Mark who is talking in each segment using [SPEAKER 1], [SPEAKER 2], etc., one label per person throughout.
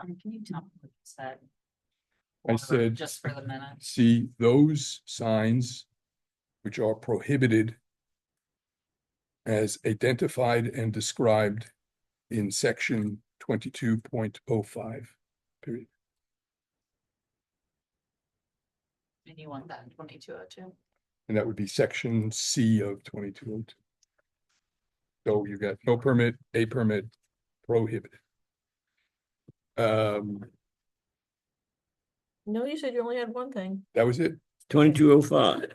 [SPEAKER 1] Um, can you tell me what you said?
[SPEAKER 2] I
[SPEAKER 1] Or
[SPEAKER 2] said-
[SPEAKER 1] Just for the minute.
[SPEAKER 2] See, those signs which are prohibited as identified and described in section twenty-two point oh five, period.
[SPEAKER 1] And you want that in twenty-two oh two?
[SPEAKER 2] And that would be section C of twenty-two oh two. So you got no permit, a permit, prohibited. Um,
[SPEAKER 3] No, you said you only had one thing.
[SPEAKER 2] that was it.
[SPEAKER 4] Twenty-two oh five,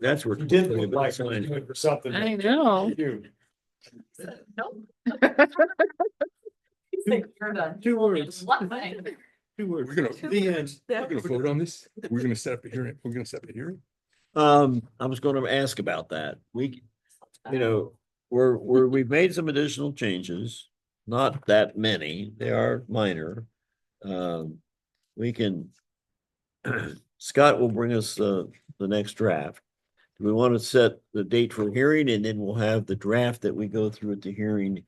[SPEAKER 4] that's where.
[SPEAKER 5] You did look like you were doing for something.
[SPEAKER 6] I know.
[SPEAKER 5] You,
[SPEAKER 1] Nope. He's like, you're done.
[SPEAKER 4] Two words.
[SPEAKER 1] One thing.
[SPEAKER 4] Two
[SPEAKER 2] We're gonna-
[SPEAKER 4] The end.
[SPEAKER 2] We're gonna vote on this. We're gonna set up a hearing. We're gonna set up a hearing.
[SPEAKER 4] Um, I was gonna ask about that. We, you know, we're, we're, we've made some additional changes. Not that many, they are minor. Um, we can. Scott will bring us the, the next draft. Do we want to set the date for hearing and then we'll have the draft that we go through at the hearing?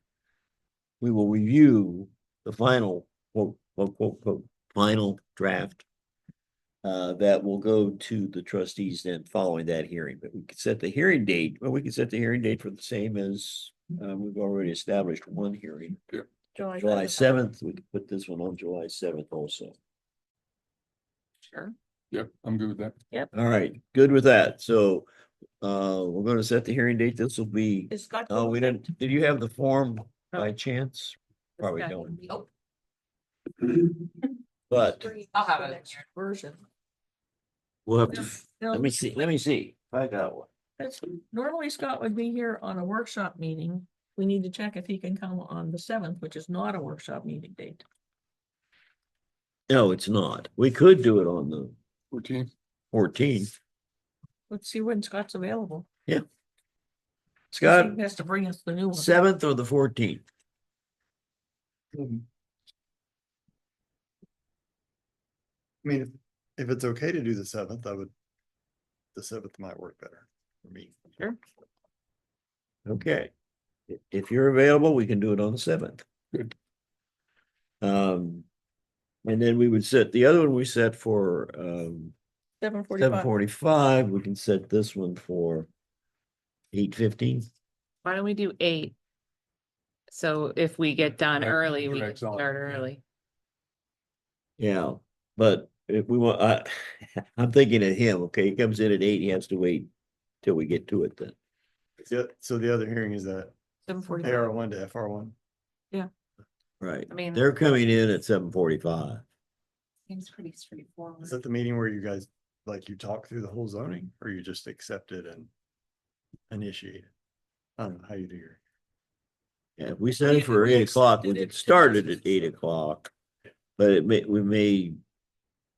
[SPEAKER 4] We will review the final, quote, quote, quote, quote, final draft uh, that will go to the trustees then following that hearing, but we could set the hearing date, well, we could set the hearing date for the same as uh, we've already established one hearing, July seventh, we could put this one on July seventh also.
[SPEAKER 1] Sure.
[SPEAKER 2] Yep, I'm good with that.
[SPEAKER 4] All right, good with that, so uh, we're gonna set the hearing date, this will be,
[SPEAKER 3] Is Scott?
[SPEAKER 4] oh, we didn't, did you have the form by chance? Probably
[SPEAKER 3] Okay.
[SPEAKER 4] don't,
[SPEAKER 1] Nope.
[SPEAKER 4] but
[SPEAKER 1] I'll have it in here.
[SPEAKER 3] Version.
[SPEAKER 4] we'll have to, let me see, let me see, if I got one.
[SPEAKER 3] That's- Normally Scott would be here on a workshop meeting. We need to check if he can come on the seventh, which is not a workshop meeting date.
[SPEAKER 4] No, it's not, we could do it on the
[SPEAKER 2] Fourteen.
[SPEAKER 4] fourteenth,
[SPEAKER 3] Let's see when Scott's available.
[SPEAKER 4] Scott?
[SPEAKER 3] He Has to bring us the new one.
[SPEAKER 4] Seventh or the fourteenth?
[SPEAKER 5] I mean, if, if it's okay to do the seventh, I would, the seventh might work better for me.
[SPEAKER 3] Sure.
[SPEAKER 4] Okay. I- If you're available, we can do it on the seventh.
[SPEAKER 2] Good.
[SPEAKER 4] Um, and then we would set, the other one we set for, um,
[SPEAKER 3] Seven
[SPEAKER 4] seven
[SPEAKER 3] forty-five.
[SPEAKER 4] forty-five, we can set this one for eight fifteen.
[SPEAKER 6] Why don't we do eight? So if we get done
[SPEAKER 2] Right,
[SPEAKER 6] early,
[SPEAKER 2] you're
[SPEAKER 6] we can
[SPEAKER 2] excellent,
[SPEAKER 6] start
[SPEAKER 2] yeah.
[SPEAKER 6] early.
[SPEAKER 4] Yeah, but if we want, I, I'm thinking of him, okay, he comes in at eight, he has to wait till we get to it then.
[SPEAKER 5] Yeah, so the other hearing is that
[SPEAKER 3] Seven
[SPEAKER 5] AR
[SPEAKER 3] forty-five.
[SPEAKER 5] one to FR one.
[SPEAKER 4] Right,
[SPEAKER 6] I mean-
[SPEAKER 4] they're coming in at seven forty-five.
[SPEAKER 1] Seems pretty straightforward.
[SPEAKER 5] Is that the meeting where you guys, like, you talk through the whole zoning or you just accept it and initiate? it? I don't know how you do your.
[SPEAKER 4] Yeah, if we set it
[SPEAKER 3] Yeah,
[SPEAKER 4] for
[SPEAKER 3] we
[SPEAKER 4] eight o'clock, we
[SPEAKER 3] extended it
[SPEAKER 4] could
[SPEAKER 3] to
[SPEAKER 4] start it
[SPEAKER 3] just-
[SPEAKER 4] at eight o'clock. But it may, we may,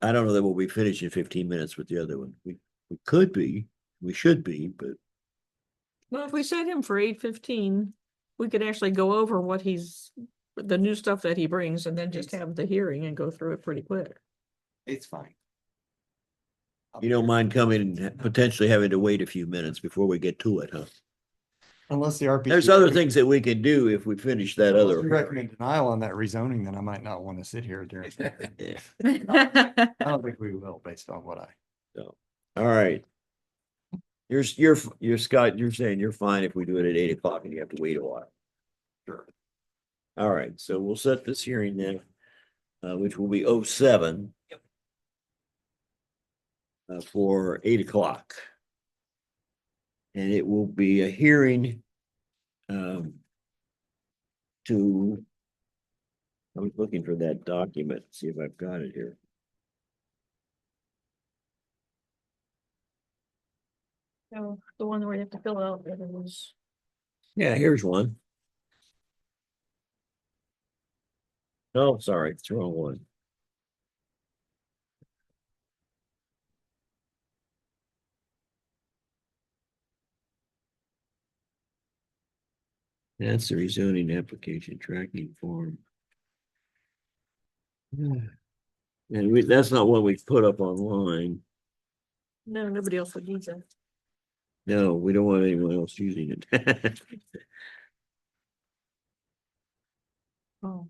[SPEAKER 4] I don't know that we'll be finished in fifteen minutes with the other one. We, we could be, we should be, but
[SPEAKER 3] Well, if we set him for eight fifteen, we could actually go over what he's, the new stuff that he brings and then just have the hearing and go through it pretty quick.
[SPEAKER 5] It's fine.
[SPEAKER 4] you don't mind coming and ha- potentially having to wait a few minutes before we get to it, huh?
[SPEAKER 5] Unless the RP.
[SPEAKER 4] There's other things that we can do if we finish that
[SPEAKER 5] Unless
[SPEAKER 4] other.
[SPEAKER 5] you recommend denial on that rezoning, then I might not want to sit here during. I
[SPEAKER 4] hearing. Yeah.
[SPEAKER 5] don't think we will based on what I.
[SPEAKER 4] All right. You're, s- you're, f- you're Scott, you're saying you're fine if we do it at eight o'clock and you have to wait a while. Sure. All right, so we'll set this hearing then, uh, which will be oh seven. Uh, for eight o'clock. And it will be a hearing. Um. To. I was looking for that document, see if I've got it here.
[SPEAKER 3] So the one where you have to fill out everyone's.
[SPEAKER 4] Yeah, here's one. Oh, sorry, it's the wrong one. That's the rezoning application tracking form. Yeah. And we, that's not what we put up online.
[SPEAKER 3] No, nobody else would use that.
[SPEAKER 4] No, we don't want anyone else using it.
[SPEAKER 3] Oh.